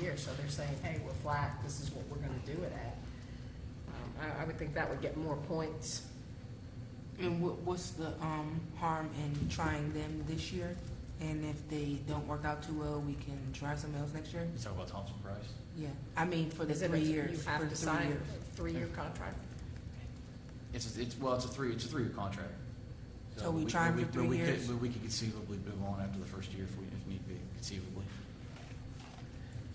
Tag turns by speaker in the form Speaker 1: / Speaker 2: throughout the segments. Speaker 1: year, so they're saying, hey, we're flat, this is what we're gonna do it at. Um, I, I would think that would get more points.
Speaker 2: And what, what's the, um, harm in trying them this year? And if they don't work out too well, we can try something else next year?
Speaker 3: You talk about Thompson Price?
Speaker 2: Yeah, I mean, for the
Speaker 1: Is it a-
Speaker 2: three years,
Speaker 1: You
Speaker 2: for
Speaker 1: have
Speaker 2: the
Speaker 1: to
Speaker 2: three
Speaker 1: sign
Speaker 2: years.
Speaker 1: a three-year contract.
Speaker 3: It's, a- it's, well, it's a three, it's a three-year contract.
Speaker 2: So we try 'em for
Speaker 3: we- but
Speaker 2: three
Speaker 3: we could-
Speaker 2: years?
Speaker 3: But we could conceivably move on after the first year if we, if need be, conceivably.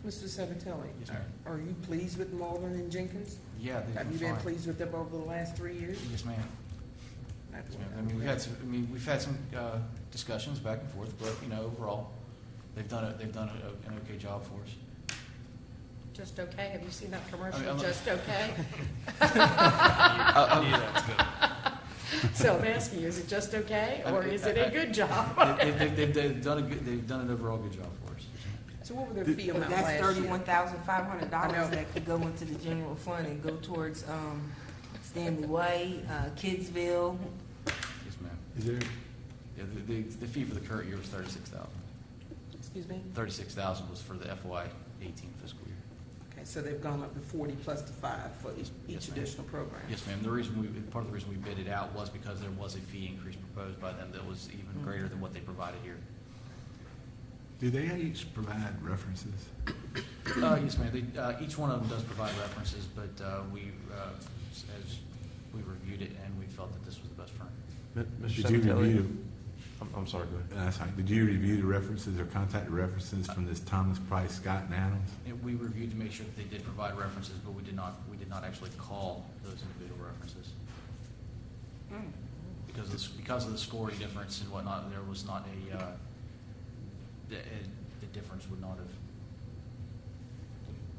Speaker 4: Mr. Sabatelli,
Speaker 3: Yes, ma'am.
Speaker 4: are you pleased with Malden and Jenkins?
Speaker 3: Yeah, they've
Speaker 4: Have you
Speaker 3: been
Speaker 4: been
Speaker 3: fine.
Speaker 4: pleased with them over the last three years?
Speaker 3: Yes, ma'am. Yes, ma'am. I mean, we've had some, I mean, we've had some, uh, discussions back and forth, but, you know, overall, they've done a, they've done a- an okay job for us.
Speaker 1: Just okay, have you seen that
Speaker 3: I mean,
Speaker 1: commercial,
Speaker 3: I'm-
Speaker 1: Just Okay?
Speaker 3: Uh, um,
Speaker 1: So I'm asking you, is it just okay,
Speaker 3: I-
Speaker 1: or is it
Speaker 3: I-
Speaker 1: a
Speaker 3: I-
Speaker 1: good job?
Speaker 3: They've, they've- they've, they've done a good, they've done an overall good job for us.
Speaker 4: So what were their fee
Speaker 2: But
Speaker 4: amount
Speaker 2: that's
Speaker 4: last year?
Speaker 2: thirty-one thousand five hundred
Speaker 4: I know.
Speaker 2: dollars that could go into the general fund and go towards, um, Stanley Way, uh, Kidsville.
Speaker 3: Yes, ma'am.
Speaker 5: Is there,
Speaker 3: Yeah, the, the, the fee for the current year was thirty-six thousand.
Speaker 4: Excuse me?
Speaker 3: Thirty-six thousand was for the FY eighteen fiscal year.
Speaker 4: Okay, so they've gone up to forty plus the five for each,
Speaker 3: Yes,
Speaker 4: each
Speaker 3: ma'am.
Speaker 4: additional program?
Speaker 3: Yes, ma'am. The reason we, part of the reason we bid it out was because there was a fee increase proposed by them that was even greater than what they provided here.
Speaker 5: do they each provide references?
Speaker 3: Uh, yes, ma'am. They, uh, each one of them does provide references, but, uh, we, uh, s- as, we reviewed it and we felt that this was the best firm.
Speaker 6: M- Mr.
Speaker 5: Did you
Speaker 6: Sabatelli,
Speaker 5: review,
Speaker 6: I'm, I'm sorry, go ahead.
Speaker 5: the- uh, sorry, did you review the references or contact the references from this Thomas Price, Scott and Adams?
Speaker 3: And we reviewed to make sure that they did provide references, but we did not, we did not actually call those individual references. Hmm. Because of, the s- because of the scoring difference and whatnot, there was not a, uh, the, uh, the difference would not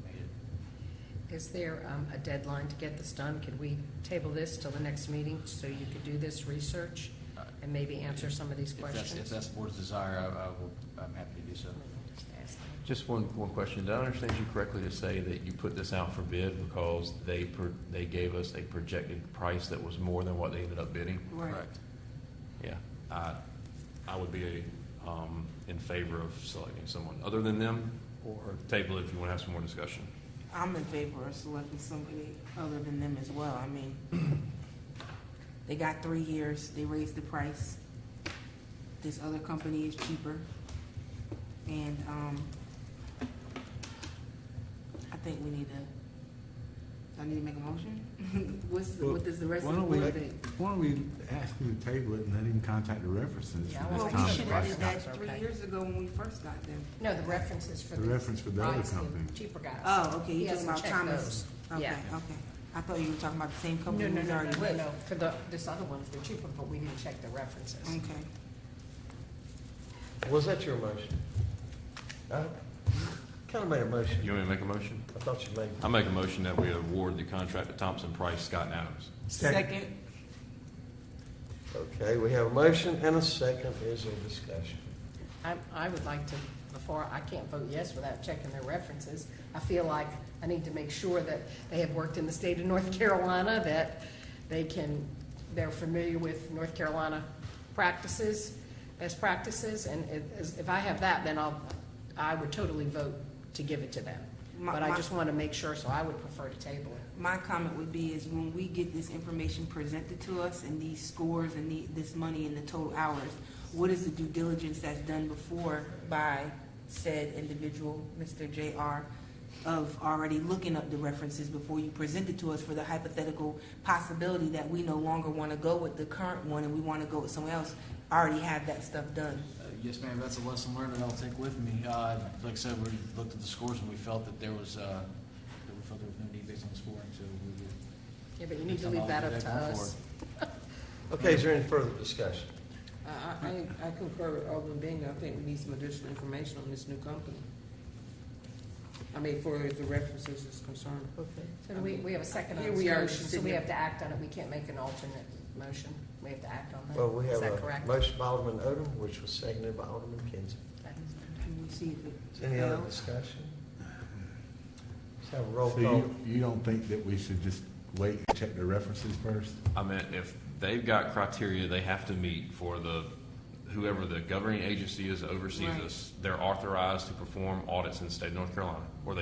Speaker 3: have made it.
Speaker 1: Is there um, a deadline to get this done? Could we table this till the next meeting so you could do this research
Speaker 3: Uh,
Speaker 1: and maybe answer some of these
Speaker 3: If that's, if
Speaker 1: questions?
Speaker 3: that's the board's desire, I, I will, I'm happy to do so.
Speaker 1: I mean, I'm just asking.
Speaker 6: Just one, one question. Did I understand you correctly to say that you put this out for bid because they, pro- they gave us a projected price that was more than what they ended up bidding?
Speaker 3: Correct.
Speaker 6: Yeah, I, I would be, um, in favor of selecting someone other than them or table it if you want to have some more discussion.
Speaker 2: I'm in favor of selecting somebody other than them as well. I mean, they got three years, they raised the price. This other company is cheaper. And, um, I think we need to, do I need to make a motion? What's, what does the rest of the
Speaker 5: Why
Speaker 2: board
Speaker 5: don't we-
Speaker 2: think?
Speaker 5: Why don't we ask him to table it and let him contact the references
Speaker 1: Yeah, I
Speaker 5: from
Speaker 2: Well,
Speaker 1: wanna
Speaker 5: this
Speaker 2: we
Speaker 5: Thomas
Speaker 2: should have
Speaker 5: Price,
Speaker 2: did
Speaker 5: Scott?
Speaker 2: that
Speaker 1: Okay.
Speaker 2: three years ago when we first got them.
Speaker 1: No, the references for
Speaker 5: The
Speaker 1: the.
Speaker 5: reference for the other
Speaker 1: price,
Speaker 5: company.
Speaker 1: Cheaper guys.
Speaker 2: Oh, okay,
Speaker 1: He
Speaker 2: you're talking
Speaker 1: hasn't
Speaker 2: about
Speaker 1: checked
Speaker 2: Thomas.
Speaker 1: those.
Speaker 2: Okay,
Speaker 1: Yeah.
Speaker 2: okay. I thought you were talking about the same
Speaker 1: No, no,
Speaker 2: company
Speaker 1: no,
Speaker 2: who's
Speaker 1: no,
Speaker 2: already
Speaker 1: no,
Speaker 2: with.
Speaker 1: no, for the, this other one's the cheaper, but we didn't check the references.
Speaker 2: Okay.
Speaker 7: Was that your motion? I kind of made a motion.
Speaker 6: You want me to make a motion?
Speaker 7: I thought you made.
Speaker 6: I make a motion that we award the contract to Thompson Price, Scott and Adams.
Speaker 2: Second.
Speaker 7: Okay, we have a motion and a second. Is there discussion?
Speaker 1: I, I would like to, before, I can't vote yes without checking their references. I feel like I need to make sure that they have worked in the state of North Carolina, that they can, they're familiar with North Carolina practices, best practices, and if- as- if I have that, then I'll, I would totally vote to give it to them.
Speaker 2: My-
Speaker 1: But I
Speaker 2: my-
Speaker 1: just want to make sure, so I would prefer to table it.
Speaker 2: My comment would be is when we get this information presented to us and these scores and the, this money and the total hours, what is the due diligence that's done before by said individual, Mr. JR, of already looking up the references before you present it to us for the hypothetical possibility that we no longer want to go with the current one and we want to go with someone else, already have that stuff done.
Speaker 3: Uh, Yes, ma'am, that's a lesson learned that I'll take with me. Uh, Like I said, we looked at the scores and we felt that there was, uh, that we felt there was no need based on the scoring, so we would.
Speaker 1: Yeah, but you need to leave that up to us.
Speaker 7: Okay, is there any further discussion?
Speaker 4: I, I, I concur with Alderman Bingham. I think we need some additional information on this new company. I mean, for the references is concerned.
Speaker 1: Okay. So do we, we have a second on
Speaker 4: Here
Speaker 1: this
Speaker 4: we are,
Speaker 1: motion, so we
Speaker 4: sitting-
Speaker 1: have to act on it. We can't make an alternate motion. We have to act on that.
Speaker 7: Well, we
Speaker 1: Is
Speaker 7: have
Speaker 1: that
Speaker 7: a
Speaker 1: correct?
Speaker 7: motion by Alderman Odom, which was seconded by Alderman Kinsey.
Speaker 2: Can we see if it
Speaker 7: Is there any other
Speaker 2: fails?
Speaker 7: discussion? Let's have a roll
Speaker 5: So
Speaker 7: call.
Speaker 5: you, you don't think that we should just wait and check the references first?
Speaker 6: I mean, if they've got criteria they have to meet for the, whoever the governing agency is that oversees
Speaker 2: Right.
Speaker 6: us, they're authorized to perform audits in the state of North Carolina, or they